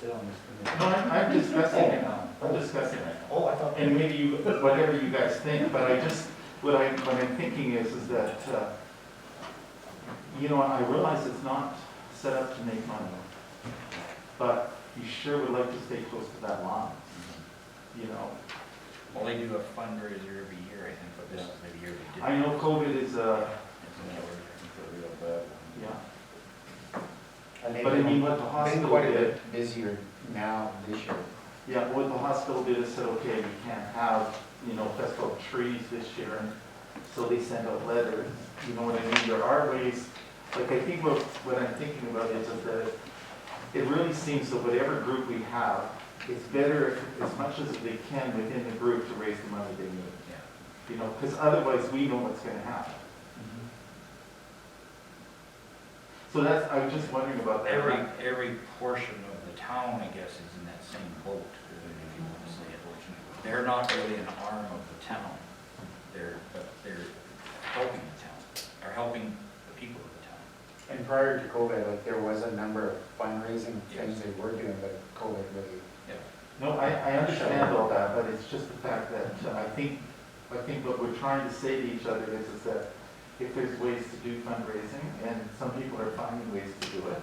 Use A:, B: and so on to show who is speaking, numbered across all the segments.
A: sit on this
B: No, I'm
A: committee.
B: I'm discussing it now, I'm discussing it.
A: Oh, I thought.
B: And maybe you, whatever you guys think, but I just, what I, what I'm thinking is, is that, uh, you know, I realize it's not set up to make money, but you sure would like to stay close to that line, you know?
C: Well, they do a fundraiser every year, I think, but this is the year they did.
B: I know COVID is, uh, yeah,
A: And
B: but I mean,
A: they've
B: what the
A: been
B: hospital
A: quite a
B: did,
A: bit busier now this year.
B: yeah, what the hospital did is said, okay, you can't have, you know, festival of trees this year, and so they send out letters, you know what I mean, there are ways, like, I think what, what I'm thinking about is that it really seems that whatever group we have, it's better, if- as much as they can within the group, to raise the money they need, you know, because otherwise, we know what's gonna happen. So that's, I was just wondering about that.
C: Every, every portion of the town, I guess, is in that same boat, if you want to say it. They're not really an arm of the town, they're, but they're helping the town, or helping the people of the town.
A: And prior to COVID, like, there was a number of fundraising things
C: Yes.
A: they were doing, but COVID really.
B: No, I, I understand all that, but it's just the fact that uh, I think, I think what we're trying to say to each other is, is that if there's ways to do fundraising, and some people are finding ways to do it.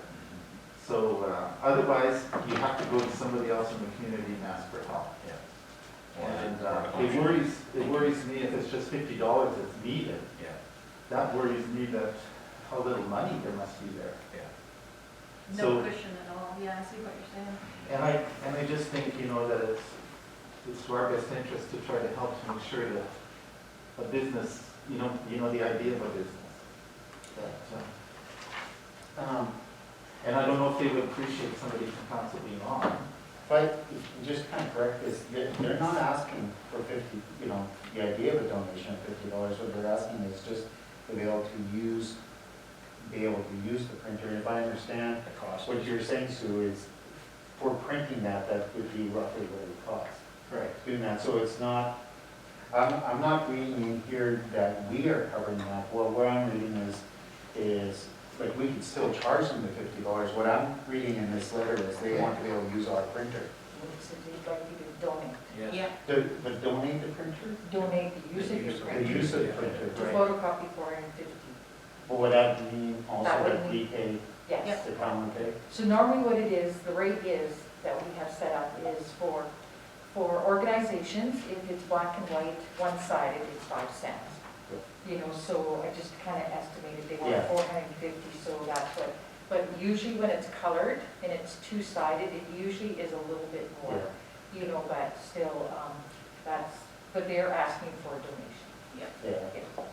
B: So, uh, otherwise, you have to go to somebody else in the community and ask for help.
C: Yeah.
A: Mm-hmm.
B: And, uh, it worries, it worries me if it's just fifty dollars that's needed.
C: Yeah,
B: That worries me that how little money there must be there.
C: yeah.
B: So-
D: No cushion at all, yeah, I see what you're saying.
B: And I, and I just think, you know, that it's, it's to our best interest to try to help to make sure that a business, you know, you know, the idea of a business. That, uh, um, And I don't know if they would appreciate somebody from council being on.
A: But just kind of correct this, they're, they're not asking for fifty, you know, the idea of a donation of fifty dollars, what they're asking is just to be able to use, be able to use the printer. If I understand
C: The cost.
A: what you're saying, Sue, is for printing that, that would be roughly what it costs.
B: Right.
A: doing that, so it's not, I'm, I'm not reading here that we are covering that, well, what I'm reading is, is, like, we can still charge them the fifty dollars, what I'm reading in this letter is they want to be able to use our printer.
E: So they'd like you to donate.
C: Yeah.
A: The, the donate the printer?
E: Donate the use
C: The
E: of your
C: use of
A: The
E: printer.
A: use of the printer,
E: The
A: right,
E: photocopy four hundred and fifty.
A: but would that mean also
E: That would
A: that we
E: mean-
A: pay
E: Yes.
A: the common pay?
E: So normally what it is, the rate is, that we have set up is for, for organizations, if it's black and white, one-sided, it's five cents. You know, so I just kind of estimated they want
A: Yeah.
E: four hundred and fifty, so that's what, but usually when it's colored and it's two-sided, it usually is a little bit more, you know, but still, um, that's, but they're asking for a donation.
A: Yeah,
E: Yeah.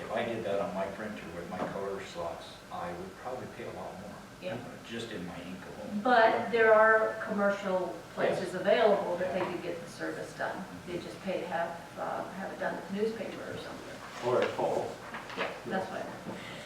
C: If I did that on my printer with my color slots, I would probably pay a lot more.
F: Yeah.
C: Just in my ink alone.
F: But there are commercial places available that they could get the service done. They just pay to have, uh, have it done with newspaper or something.
B: Or at Paul.
F: Yeah, that's what. I meant.